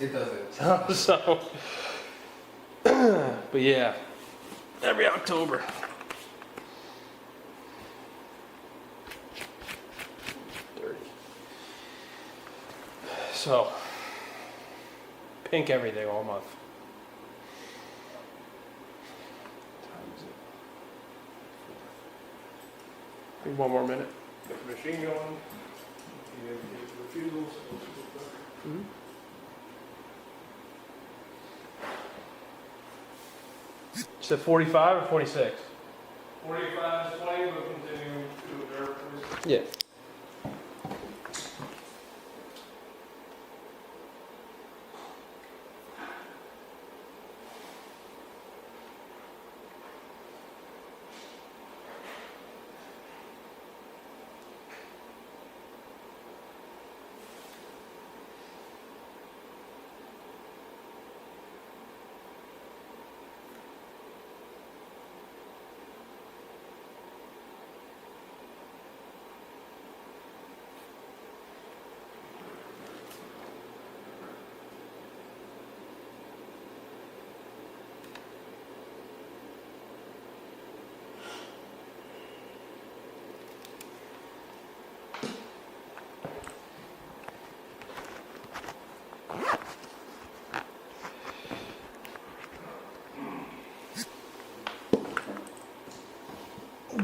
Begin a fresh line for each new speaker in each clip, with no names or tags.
It doesn't.
so, but yeah, every October. Dirty. So, pink everything all month. Times it. Need one more minute.
Get the machine going, you have the refusals, those people.
Mm-hmm. Is it 45 or 46?
Forty-five is plenty, we'll continue to observe this.
Yeah.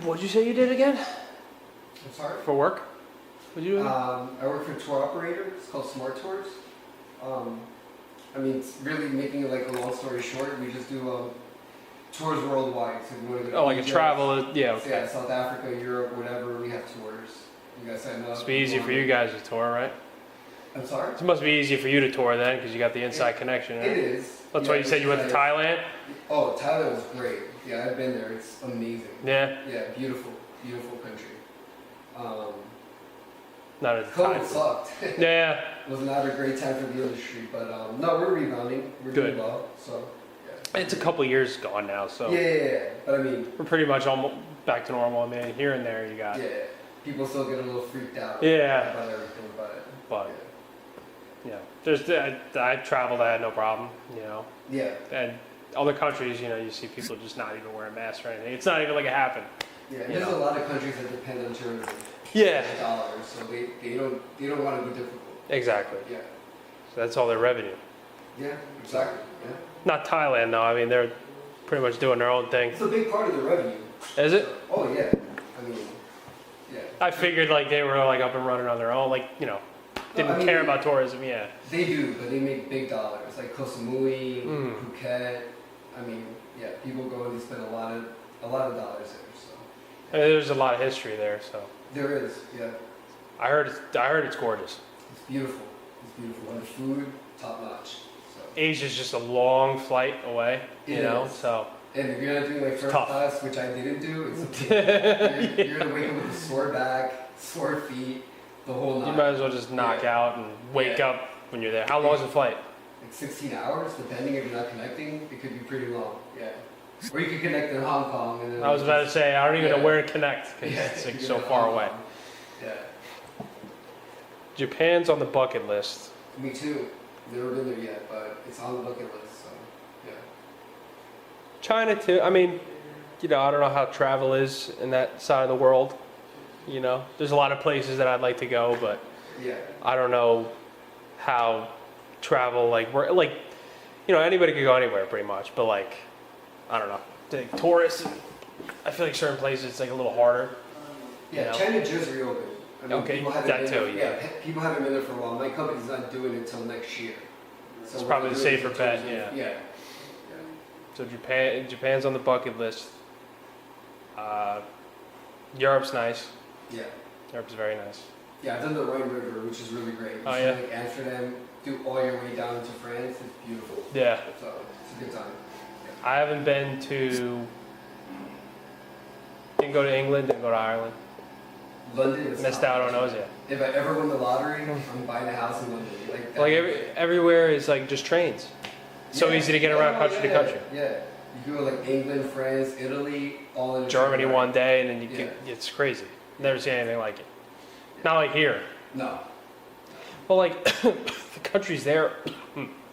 What'd you say you did again?
I'm sorry.
For work? What'd you do?
Um, I work for a tour operator. It's called Smart Tours. Um, I mean, it's really making it like a long story short. We just do um, tours worldwide. So if you want to go to
oh, like a
Egypt,
travel. Yeah, okay.
Yeah, South Africa, Europe, whatever. We have tours. You guys sign up.
It's be easy for you guys to tour, right?
I'm sorry.
It must be easy for you to tour then, because you got the inside connection.
It
Right?
is.
That's
Yeah,
why you said you went to
Thailand.
Thailand.
Oh, Thailand was great. Yeah, I've been there. It's amazing.
Yeah,
Yeah, beautiful, beautiful country. Um,
not at the
COVID
time.
sucked.
Yeah,
was not a great time for the industry, but um, no, we're rebounding. We're
Good.
doing well. So yeah.
it's a couple years gone now, so
yeah, yeah, yeah. But I mean,
we're pretty much almost back to normal. I mean, here and there you got.
yeah, people still get a little freaked out
Yeah, Oh,
about everything, but
but yeah, there's I, I traveled, I had no problem, you know,
yeah, yeah,
and other countries, you know, you see people just not even wearing masks or anything. It's not even like it happened.
yeah.
You
There's
know.
a lot of countries that depend on tourism,
Yeah,
and dollars, so they, they don't they don't want to be difficult.
exactly.
Yeah,
So that's all their revenue.
yeah, exactly. Yeah,
Not Thailand though. I mean, they're pretty much doing their own thing.
it's a big part of the revenue.
Is it?
Oh yeah, I mean, yeah.
I figured like they were like up and running on their own, like you know, didn't
I mean,
care
they-
about tourism. Yeah,
They do, but they make big dollars, like Koh Samui,
Mm.
Phuket. I mean, yeah, people go and they spend a lot of a lot of dollars there. So
I mean, there's a lot of history there. So
there is, yeah,
I heard it's, I heard it's gorgeous.
it's beautiful. It's beautiful, and the food top notch. So
Asia's just a long flight away, you
It
know.
is.
So
and if you're not doing like first
tough.
class, which I didn't do, it's you're, you're gonna wake up with a sore back, sore feet, the whole
you
night.
might as well just knock out and wake
Yeah.
up when you're there. How long is the flight?
like 16 hours, depending if you're not connecting, it could be pretty long. Yeah, or you could connect in Hong Kong and then
I was about to say I don't even know
Yeah.
where to connect because
Yeah,
it's
you
like
get
so
to
far
Hong
away.
Kong. Yeah.
Japan's on the bucket list.
Me too. Never been there yet, but it's on the bucket list. So, yeah.
China too. I mean, you know, I don't know how travel is in that side of the world. You know, there's a lot of places that I'd like to go, but
Yeah.
I don't know how travel like we're like you know anybody could go anywhere pretty much, but like I don't know like tourists. I feel like certain places it's like a little harder.
Yeah.
You know?
China just reopened. I mean,
Okay,
People haven't
that
been
too,
There,
yeah.
pe- People haven't been there for a while. My company's not doing it until next year. So
It's
we're
probably
not
the
doing it
safer
until
bet,
June.
yeah.
Yeah.
So Japan Japan's on the bucket list. Uh, Europe's nice.
Yeah.
Europe's very nice.
Yeah. I've done the Rhine River, which is really great.
Oh,
It's
yeah.
Like Amsterdam, do all your way down to France. It's beautiful.
Yeah,
So it's a good time.
I haven't been to. Didn't go to England. Didn't go to Ireland.
London is
Missed out on those yet.
If I ever win the lottery, I'm buying a house in London. Like, that.
Like every, everywhere is like just trains. So
Yeah.
easy to get around
Oh,
country to
yeah,
country.
Yeah, you go like England, France, Italy, all in a
Germany
train ride.
one day, and then you
Yeah.
get, it's crazy. Never seen anything like it. Not like here.
No,
Well, like the countries there Hmm.